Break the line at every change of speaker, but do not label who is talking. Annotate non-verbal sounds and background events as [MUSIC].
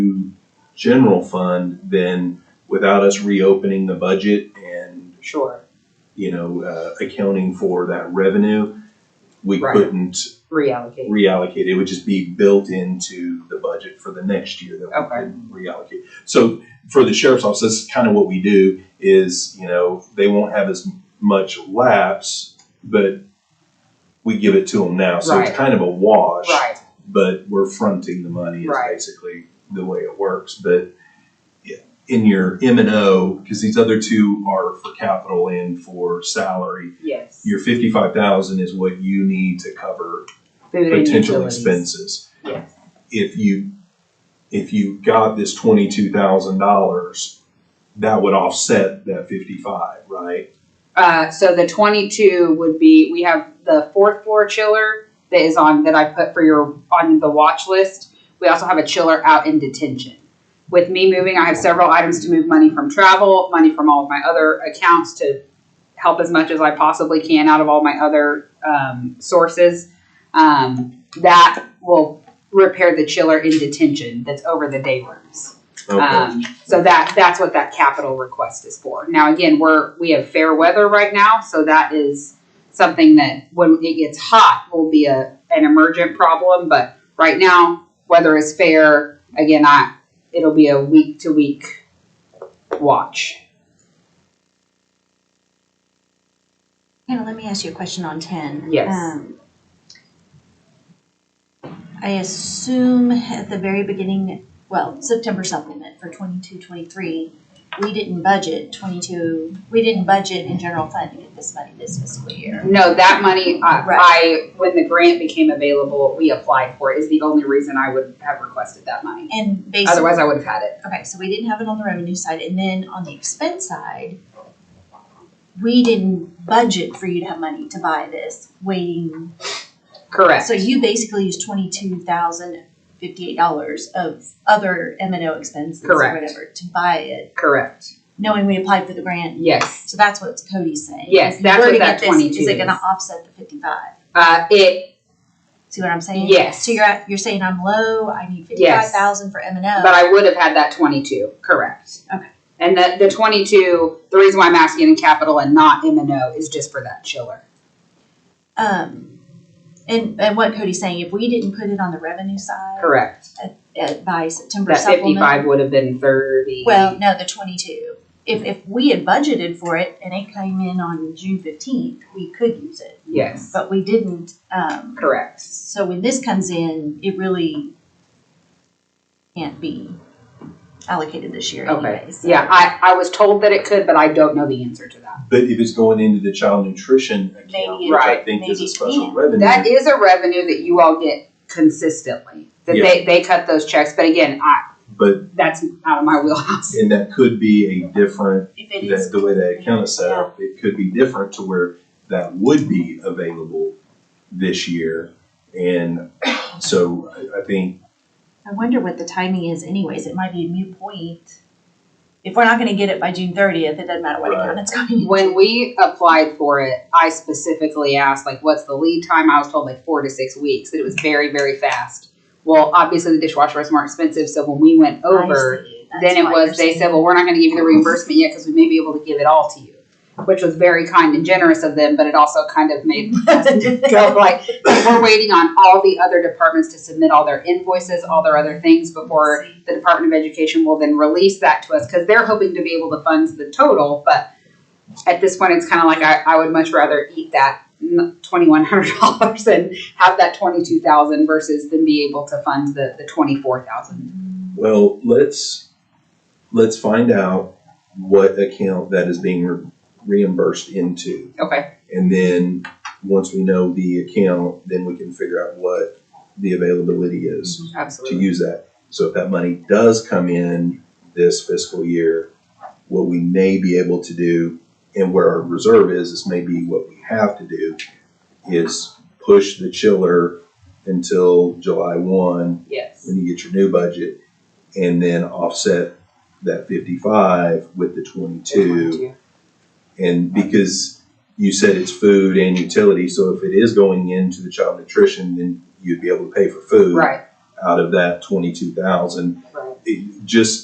general fund, then without us reopening the budget and,
Sure,
you know, uh, accounting for that revenue, we
Right.
couldn't
reallocate.
reallocate. It would just be built into the budget for the next year that we
Okay.
can reallocate. So for the sheriff's office, that's kind of what we do is, you know, they won't have as much lapse, but we give it to them now. So it's
Right.
kind of a wash
Right,
but we're fronting the money is
Right.
basically the way it works. But in your M and O, because these other two are for capital and for salary,
yes.
your fifty-five thousand is what you need to cover
Food and
potential
utilities.
expenses.
Yes,
If you, if you got this twenty-two thousand dollars, that would offset that fifty-five, right?
uh, so the twenty-two would be, we have the fourth floor chiller that is on, that I put for your, on the watch list. We also have a chiller out in detention. With me moving, I have several items to move money from travel, money from all of my other accounts to help as much as I possibly can out of all my other, um, sources. Um, that will repair the chiller in detention that's over the day rooms.
Okay.
Um, so that, that's what that capital request is for. Now, again, we're, we have fair weather right now, so that is something that when it gets hot will be a, an emergent problem, but right now, weather is fair. Again, I, it'll be a week to week watch.
Hannah, let me ask you a question on ten.
Yes.
Um, I assume at the very beginning, well, September supplement for twenty-two, twenty-three, we didn't budget twenty-two, we didn't budget in general fund to get this money this fiscal year.
No, that money, I,
Right.
I, when the grant became available, we applied for it is the only reason I would have requested that money.
And basically,
Otherwise, I would have had it.
okay, so we didn't have it on the revenue side, and then on the expense side, we didn't budget for you to have money to buy this, waiting
Correct.
So you basically used twenty-two thousand fifty-eight dollars of other M and O expenses or
Correct.
whatever to buy it,
Correct.
knowing we applied for the grant.
Yes.
So that's what Cody's saying.
Yes,
If you
that's
were
what
to
that
get this,
22
Is it gonna
is.
offset the fifty-five?
Uh, it,
See what I'm saying?
Yes.
So you're at, you're saying I'm low, I need fifty-five thousand for M and
But
O.
I would have had that twenty-two, correct.
Okay.
And the, the twenty-two, the reason why I'm asking in capital and not M and O is just for that chiller.
Um, and, and what Cody's saying, if we didn't put it on the revenue side.
Correct.
At, by September
That
supplement.
fifty-five would have been thirty.
Well, no, the twenty-two. If, if we had budgeted for it and it came in on June fifteenth, we could use it.
Yes,
but we didn't. Um,
correct.
so when this comes in, it really can't be allocated this year
Okay,
anyways.
yeah, I, I was told that it could, but I don't know the answer to that.
But if it's going into the child nutrition account,
Maybe
which I
Right.
think is a
maybe
special
ten.
revenue.
That is a revenue that you all get consistently, that they, they cut those checks, but again, I,
But
that's out of my wheelhouse.
And that could be a different,
If it
that,
is,
the way that account is set up, it could be different to where that would be available this year. And so I, I think,
I wonder what the timing is anyways. It might be a moot point. If we're not gonna get it by June thirtieth, it doesn't matter what
Right.
account it's going in.
When we applied for it, I specifically asked, like, what's the lead time? I was told like four to six weeks, that it was very, very fast. Well, obviously the dishwasher was more expensive, so when we went over,
I see. That's
then it
why
was,
you're
they
saying-
said, well, we're not gonna give you the reimbursement yet because we may be able to give it all to you. Which was very kind and generous of them, but it also kind of
[LAUGHS]
made us go like, we're waiting on all the other departments to submit all their invoices, all their other things before the Department of Education will then release that to us because they're hoping to be able to fund the total. But at this point, it's kind of like I, I would much rather eat that twenty one hundred dollars and have that twenty two thousand versus than be able to fund the the twenty four thousand.
well, let's, let's find out what account that is being re- reimbursed into.
Okay,
And then, once we know the account, then we can figure out what the availability is. to
absolutely.
use that. So if that money does come in this fiscal year, what we may be able to do and where our reserve is, is maybe what we have to do is push the chiller until July one,
Yes,
when you get your new budget, and then offset that fifty-five with the twenty-two. And because you said it's food and utility, so if it is going into the child nutrition, then you'd be able to pay for food.
Right,
out of that twenty-two thousand.
Right.
Just